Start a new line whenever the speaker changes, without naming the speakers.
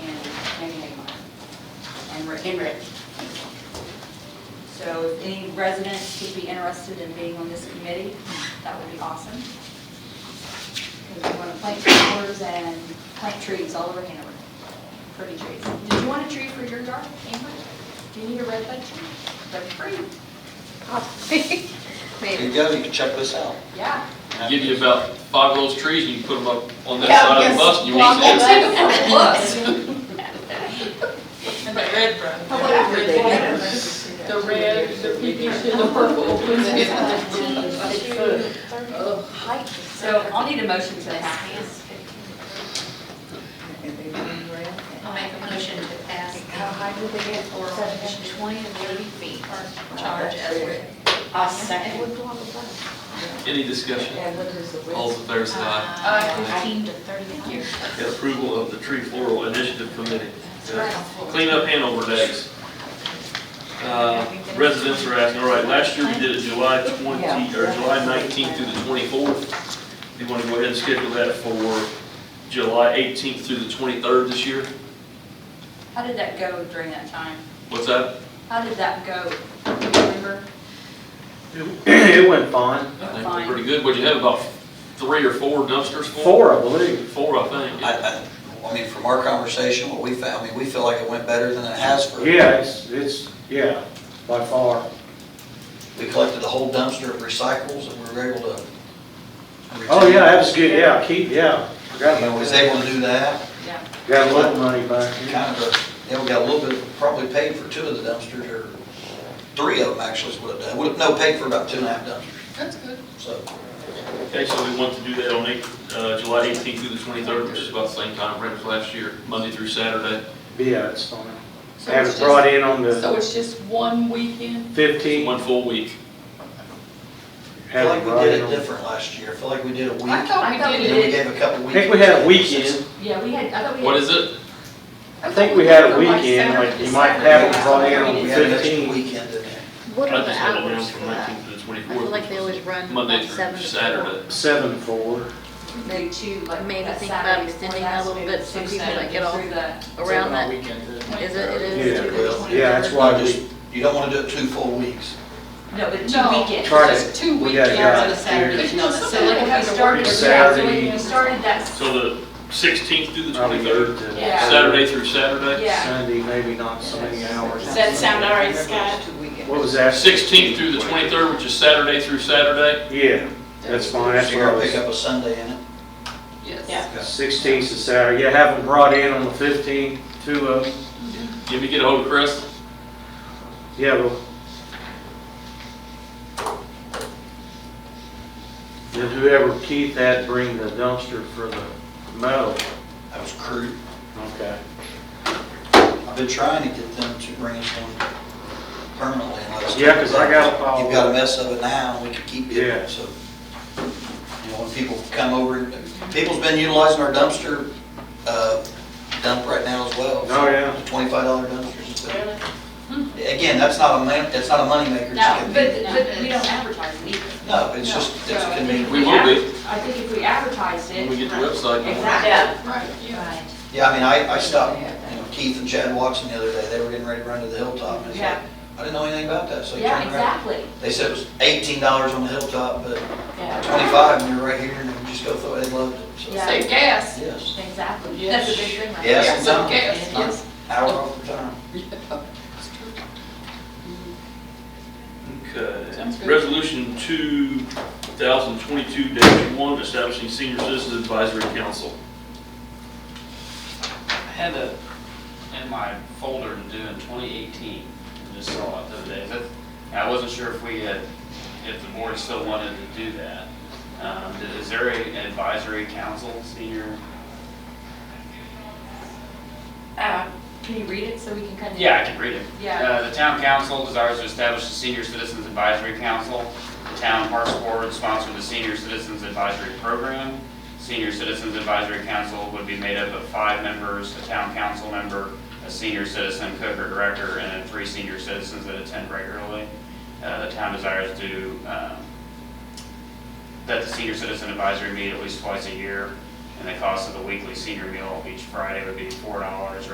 Cambridge. So if any residents would be interested in being on this committee, that would be awesome. Because we want to plant flowers and plant trees all over Hanover, pretty trees. Did you want a tree for your garden, Amber? Do you need a red bud tree? They're free.
There you
Maybe,
go, you can check this out.
yeah.
Give you about five of those trees, and you put them up on that
Yeah,
side
yes.
of the bus, and you
Well,
won't see
that's
it.
it for the bus.
And the red one.
How about
The red, the peach, and the purple. It's, uh,
So I'll need a motion to pass.
I'll make a motion to pass
How high do they get?
or
Seven.
twenty and thirty feet charge as written.
I'll second.
Any discussion?
And what is the
All those in favor say aye.
Uh, Fifteen to thirty feet.
Get approval of the tree floral initiative committee. Clean up Hanover days. Uh, Residents are asking, all right, last year we did it July 20, or July 19th through the 24th. Do you want to go ahead and schedule that for July 18th through the 23rd this year?
How did that go during that time?
What's that?
How did that go? Do you remember?
It went fine.
I think
Fine.
we're pretty good. What'd you have, about three or four dumpsters full?
Four, I believe.
Four, I think.
I, I, I mean, from our conversation, what we found, I mean, we feel like it went better than it has for.
Yeah, it's, it's, yeah, by far.
We collected a whole dumpster of recycles and we were able to.
Oh, yeah, that was good, yeah, keep, yeah. Forgot
You know,
about
was
that.
able to do that,
Yeah.
Got a little money back.
kind of, a- you know, we got a little bit, probably paid for two of the dumpsters, or three of them actually is what it done. Would have, no, paid for about two and a half dumpsters,
That's good.
so.
Okay, so we want to do that on eight- uh, July 18th through the 23rd, which is about the same time frame as last year, Monday through Saturday.
Yeah, it's fine.
So
Had
it's
it brought in on
just- So
the
it's just one weekend?
fifteenth.
One full week.
I
Had
feel like
it
we
brought
did
in
it
on.
different last year, I feel like we did a week,
I
and
I
thought
thought
we
we
did
then
it.
we gave a couple
I
weeks.
think we had a weekend.
Yeah, we had, I thought we had.
What is it?
I think we had a weekend, like you might have it brought in on
We
the
had an extra
fifteenth.
weekend in there.
What are the hours for that? I feel like they always run Monday through Saturday.
Seven, four.
Maybe two, like.
Maybe
that
think about
Saturday before
extending that a
last,
little
maybe
bit so
through
people that
Saturday,
get off-
through the-
Around that, is it, it is?
Yeah.
to the
Well,
23rd?
Yeah, that's why we,
Just- You don't want to do it two full weeks.
No, but
No.
two weekends.
Try to-
Just two
we
weekends
got
on
it
a
out
Saturday.
here.
Because you know, some
So like
people
if we
have to work.
started, yeah, so
Saturday.
we started that,
So the 16th through the
I mean, moved
23rd,
to
Yeah.
Saturday through Saturday?
yeah,
Sunday, maybe not so many hours.
Does that sound all right, Scott?
What was that?
16th through the 23rd, which is Saturday through Saturday?
Yeah, that's fine, that's
So
what
you're
I
gonna pick
was,
up a Sunday in it.
Yeah.
sixteenth is Saturday, yeah, have them brought in on the fifteenth, two of them,
Give me, get ahold of Chris.
yeah, well. Then whoever Keith had bring the dumpster for the metal,
That was crude.
okay.
I've been trying to get them to bring us one permanently. and let us-
Yeah, 'cause I got a pile.
You've got a mess of it now, and we can keep
Yeah.
it, so. You know, when people come over, people's been utilizing our dumpster uh, dump right now as well.
Oh, yeah.
The Twenty-five dollar dumpsters. and stuff. Again, that's not a man, that's not a moneymaker. it's
no, but,
convenient.
but we don't advertise it either.
No, but it's just,
No,
it's
so I think
convenient.
if
We will be.
adver- I think if we advertised it.
When we get the website going.
Exactly.
Right, yeah.
Right.
Yeah, I mean, I, I stopped, you know, Keith and Chad Watson the other day, they were getting ready to run to the hilltop, and it's like,
Yeah.
I didn't know anything about that, so I
Yeah,
turned around.
exactly.
They said it was eighteen dollars on the hilltop, but
Yeah.
twenty-five, and you're right here, and you just go throw it, they loved it, so.
Yeah.
Save gas.
Yes,
Exactly.
Yes.
That's a big thing. right
Yes,
there.
it's
Save
done.
gas, yes.
hour off the time.
Sounds
Okay.
good.
Resolution 2022-1, establishing senior citizen advisory council.
I had a, in my folder to do in 2018, I just saw it the other day. That- and I wasn't sure if we had, if the board still wanted to do that. Um, Is there a- an advisory council, senior?
Uh, Can you read it so we can kind of?
Yeah, I can read it.
Yeah.
Uh, The town council desires to establish a senior citizens advisory council. The town parks board sponsored the senior citizens advisory program. Senior citizens advisory council would be made up of five members, a town council member, a senior citizen cook or director, and then three senior citizens that attend regularly. Uh, The town desires to um, that the senior citizen advisory meet at least twice a year, and the cost of the weekly senior meal each Friday would be four dollars or